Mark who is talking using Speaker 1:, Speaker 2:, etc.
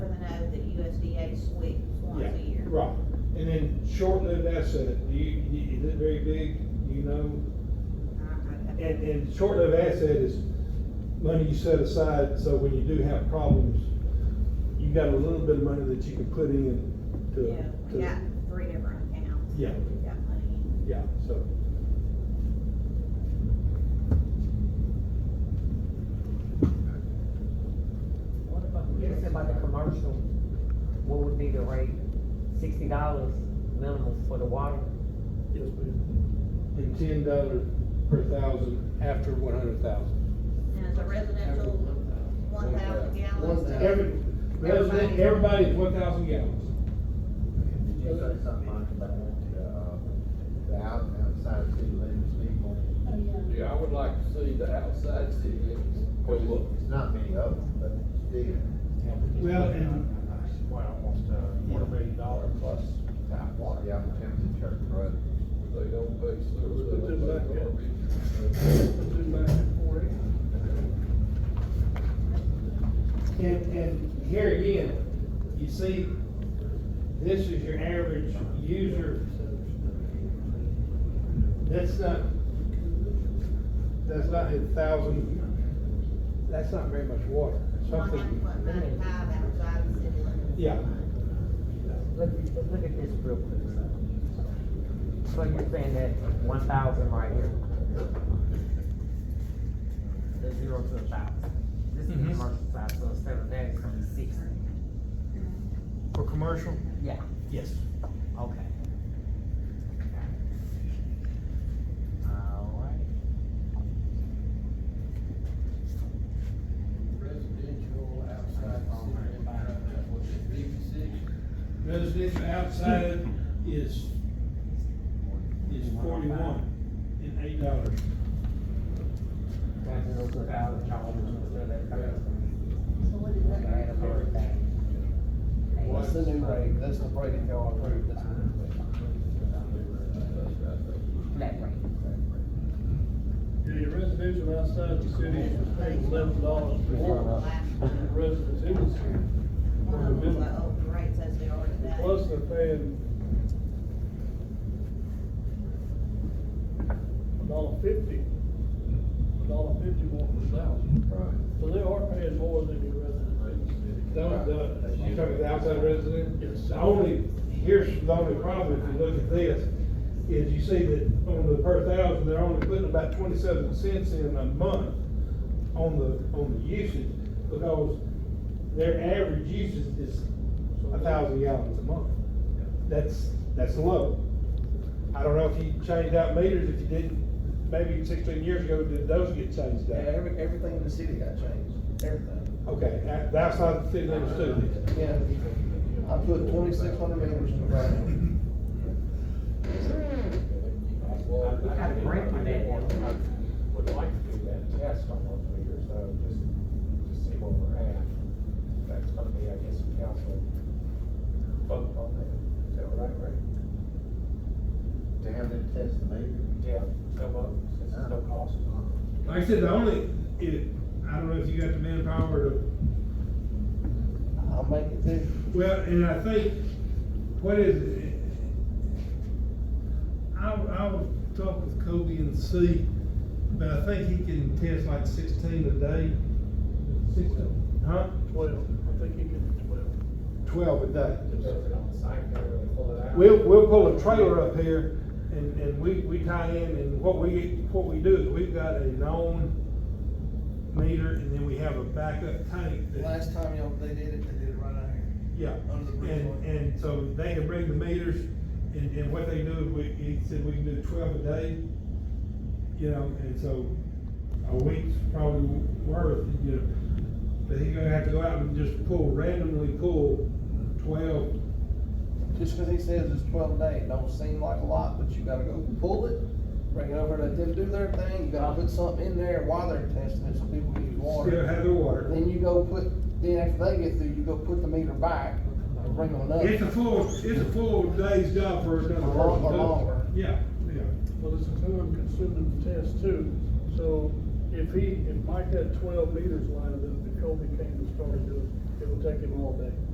Speaker 1: Right, and then short-lived asset, do you, you- is it very big, Do you know?
Speaker 2: I- I-
Speaker 1: And, and short-lived asset is money you set aside, so when you do have problems, you got a little bit of money that you can put in to,
Speaker 2: Yeah,
Speaker 1: to.
Speaker 2: we got three different accounts.
Speaker 1: Yeah.
Speaker 2: We got money.
Speaker 1: Yeah, so.
Speaker 3: What about, you said about the commercial, what would be the rate? Sixty dollars minimum for the water?
Speaker 1: Yes, ma'am. And ten dollars per thousand after one hundred thousand.
Speaker 2: And it's a residential, one thousand
Speaker 4: One thousand.
Speaker 2: gallons.
Speaker 1: Every, resident, everybody's one thousand gallons.
Speaker 4: Did you say something Mike, about the, uh, the out, outside city limits people?
Speaker 5: Oh, yeah.
Speaker 6: Yeah, I would like to see the outside city limits. Well, look,
Speaker 4: There's not many of them, but still.
Speaker 1: Well, and-
Speaker 7: Well, uh, almost a quarter million dollar plus tap water.
Speaker 4: Yeah, I'm tempted to church road.
Speaker 6: they don't pay sewer,
Speaker 1: Put
Speaker 6: they
Speaker 1: them
Speaker 6: don't
Speaker 1: back
Speaker 6: pay
Speaker 1: up.
Speaker 6: garbage.
Speaker 1: And, and here again, you see, this is your average user. That's not, that's not a thousand, that's not very much water,
Speaker 2: One hundred
Speaker 1: something.
Speaker 2: and ninety-five outside the city limits.
Speaker 1: Yeah.
Speaker 3: Look, look at this real quick. So you're saying that one thousand right here? The zero to a thousand. This is the
Speaker 8: Mhm.
Speaker 3: commercial side, so instead of that, it's gonna be sixty.
Speaker 8: For commercial?
Speaker 3: Yeah,
Speaker 8: Yes.
Speaker 3: okay. Alright.
Speaker 6: Residential outside city limits, what's it, fifty-six?
Speaker 1: Residential outside is, is forty-one and eight dollars.
Speaker 3: That's zero to a thousand, y'all want to consider that commercial?
Speaker 5: So what is that?
Speaker 3: Add up everything.
Speaker 4: What's the new rate? That's the rate that y'all approved, that's what it's
Speaker 3: Flat rate.
Speaker 9: Yeah, your residential outside the city is paying eleven dollars per water,
Speaker 2: Last
Speaker 9: and the
Speaker 2: one
Speaker 9: residents in the city,
Speaker 2: One of them, the open rates as they are today.
Speaker 9: plus they're paying a dollar fifty, a dollar fifty more per thousand,
Speaker 4: Right.
Speaker 9: so they are paying more than your residents in the city.
Speaker 1: The, the, you talking about the outside resident?
Speaker 9: Yes.
Speaker 1: The only, here's the only problem, if you look at this, is you see that on the per thousand, they're only putting about twenty-seven cents in a month on the, on the usage, because their average usage is a thousand gallons a month. That's, that's low. I don't know if you changed out meters, if you didn't, maybe sixteen years ago, did those get changed
Speaker 4: Yeah,
Speaker 1: out?
Speaker 4: every, everything in the city got changed, everything.
Speaker 1: Okay, that- that's not the city limits too.
Speaker 4: Yeah, I put twenty-six hundred meters in the ground.
Speaker 6: Well,
Speaker 3: We got a grant for that.
Speaker 7: Would like to do that test on one meter, so just, just see where we're at. That's gonna be, I guess, a council vote on that, is that right, right?
Speaker 4: To have them test the meter.
Speaker 7: Yeah, no vote, since there's no cost.
Speaker 1: Like I said, the only, it, I don't know if you got the manpower to,
Speaker 4: I'll make it do.
Speaker 1: well, and I think, what is it? I, will I will talk with Kobe and see, but I think he can test like sixteen a day. Sixteen, huh?
Speaker 9: Twelve, I think you can twelve.
Speaker 1: Twelve a day.
Speaker 7: Depends on the site, they really pull it out.
Speaker 1: We'll, we'll pull a trailer up here and, and we, we tie in and what we, what we do is we've got a known meter and then we have a backup tank that.
Speaker 4: Last time y'all, they did it, they did it right out here.
Speaker 1: Yeah,
Speaker 4: Under the bridge
Speaker 1: and,
Speaker 4: one.
Speaker 1: and so they can bring the meters, and, and what they do, is we, he said we can do twelve a day, you know, and so a week's probably worth, you know. But he's gonna have to go out and just pull, randomly pull twelve,
Speaker 4: Just 'cause he says it's twelve day, it don't seem like a lot, but you gotta go pull it, bring it over, let them do their thing, you gotta put something in there while they're testing it, so people can use
Speaker 1: still
Speaker 4: water.
Speaker 1: have their water.
Speaker 4: Then you go put, then after they get through, you go put the meter back, and bring them another.
Speaker 1: It's a full, it's a full day's job for another
Speaker 4: Or
Speaker 1: person.
Speaker 4: long- or longer.
Speaker 1: Yeah, yeah.
Speaker 9: Well, this is who I'm considering the test too, so if he, if Mike had twelve meters lined up, and Kobe came and started doing it, it would take him all day.